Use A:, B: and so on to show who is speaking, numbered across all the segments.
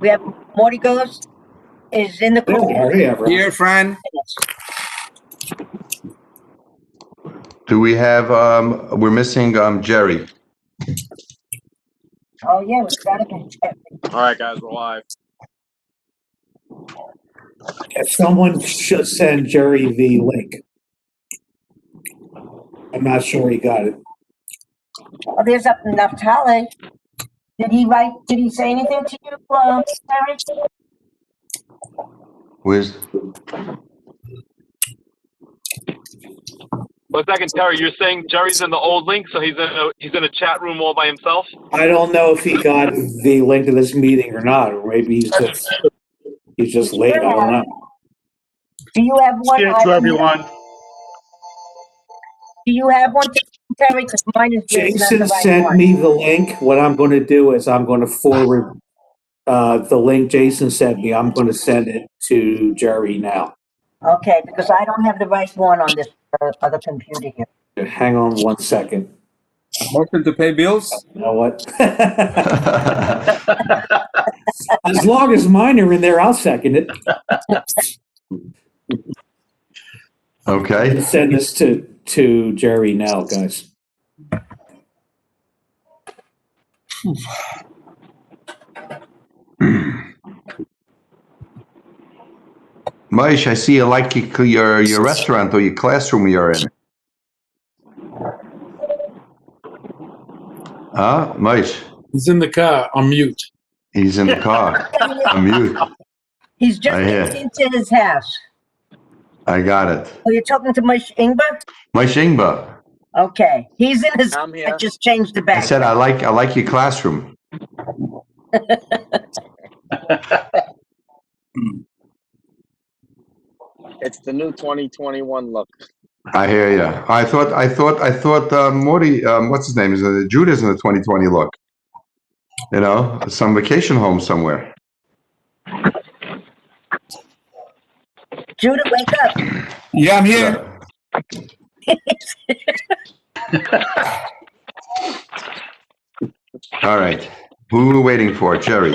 A: We have Mortigos is in the
B: Oh,
A: call.
B: hurry up, Rob.
C: Here, Fran.
D: Do we have, um, we're missing, um, Jerry.
A: Oh, yeah, we got it.
E: All right, guys, we're live.
B: If someone should send Jerry the link. I'm not sure he got it.
A: Oh, there's up in Naftali. Did he write, did he say anything to you, um, Eric?
D: Where's,
E: One second, Terry. You're saying Jerry's in the old link, so he's in a he's in a chat room all by himself.
B: I don't know if he got the link to this meeting or not, or maybe he's just, he's just late, I don't know.
A: Do you have one?
F: Cheers to everyone.
A: Do you have one, Terry? Because mine is. there's not the
B: Jason
A: right
B: sent
A: one.
B: me the link. What I'm gonna do is I'm gonna forward uh, the link Jason sent me. I'm gonna send it to Jerry now.
A: Okay, because I don't have the right one on this uh, other computer here.
B: Hang on one second.
C: Motion to pay bills?
B: You know what? As long as mine are in there, I'll second it.
D: okay,
B: Send this to, to Jerry now, guys.
D: Maish, I see you like your- your, your restaurant or your classroom you're in. Huh, Maish,
G: He's in the car on mute.
D: he's in the car, I'm mute,
A: He's just
D: Right here.
A: into his house.
D: I got it.
A: Oh, you're talking to Mush Ingber?
D: Maish Ingba,
A: Okay, he's in his,
E: I'm here.
A: I just changed the
D: I
A: back.
D: said I like, I like your classroom.
E: It's the new 2021 look.
D: I hear ya. I thought, I thought, I thought, uh, Morty, um, what's his name? Is it Judas in the 2020 look? You know, some vacation home somewhere.
A: Judah, wake up.
C: Yeah, I'm here.
D: All right. Who are we waiting for? Jerry.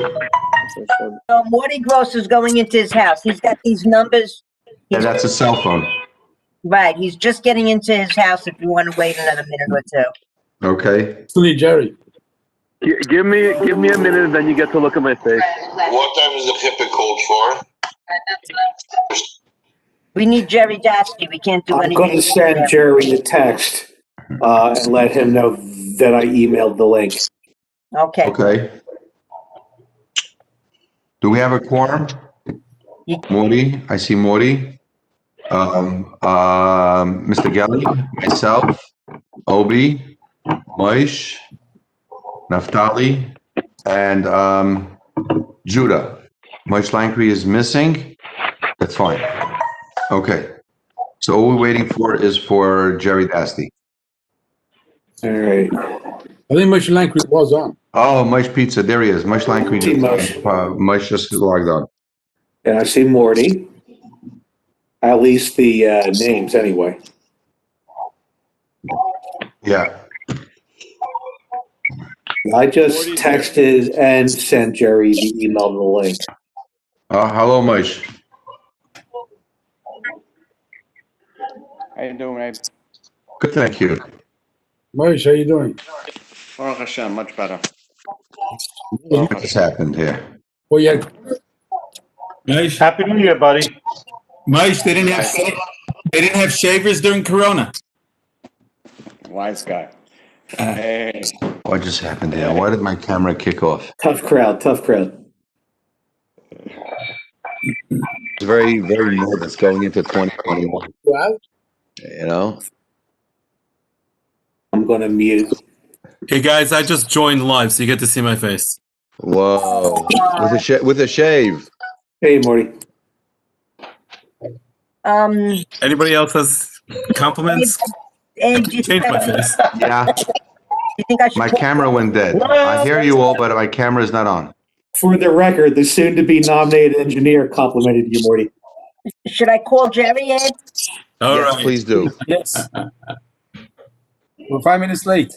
A: So Morty Gross is going into his house. He's got these numbers.
D: Yeah, that's a cell phone.
A: Right, he's just getting into his house if you want to wait another minute or two.
D: Okay.
G: Still need Jerry.
H: Gi- Give me, give me a minute, and then you get to look at my face.
I: What time is the HIPAA code for?
A: We need Jerry Dasty. We can't do
B: I'm
A: anything.
B: gonna send Jerry the text, uh, and let him know that I emailed the link.
A: Okay,
D: Okay. Do we have a quorum? Morty, I see Morty. Um, um, Mr. Gelli, myself, Obi, Moish, Naftali, and, um, Judah. Moish Langkry is missing. That's fine. Okay. So all we're waiting for is for Jerry Dasty.
B: All right.
G: I think Moshe Lankley was on.
D: Oh, Moish Pizza, there he is. Moish Langkry.
B: Hey, Moish.
D: Uh, Moish just logged on.
B: And I see Morty. At least the, uh, names anyway.
D: Yeah.
B: I just texted and sent Jerry the email to the link.
D: Uh, hello, Moish.
J: How you doing, Abe?
D: Good, thank you.
G: Moshe, how you doing?
J: Baruch Hashem, much better.
D: What just happened here?
G: Well, yeah,
C: Maish,
F: Happy New Year, buddy.
C: Maish, they didn't have, sha- they didn't have shavers during Corona.
J: Wise guy. Hey,
D: What just happened here? Why did my camera kick off?
B: Tough crowd, tough crowd.
D: It's very, very nervous going into 2021,
G: well,
D: you know?
B: I'm gonna mute.
F: Hey, guys, I just joined live, so you get to see my face.
D: Whoa, with a sha- with a shave.
B: Hey, Morty.
A: um,
F: Anybody else has compliments?
A: Abe, do you
F: Change
A: think
F: my
A: I-
F: face.
D: Yeah,
A: you think I should?
D: my
A: put-
D: camera went dead. I hear you all, but my camera's not on.
B: For the record, the soon-to-be nominated engineer complimented you, Morty.
A: Should I call Jerry, Abe?
F: All
D: Yes,
F: right.
D: please do.
C: Yes. We're five minutes late.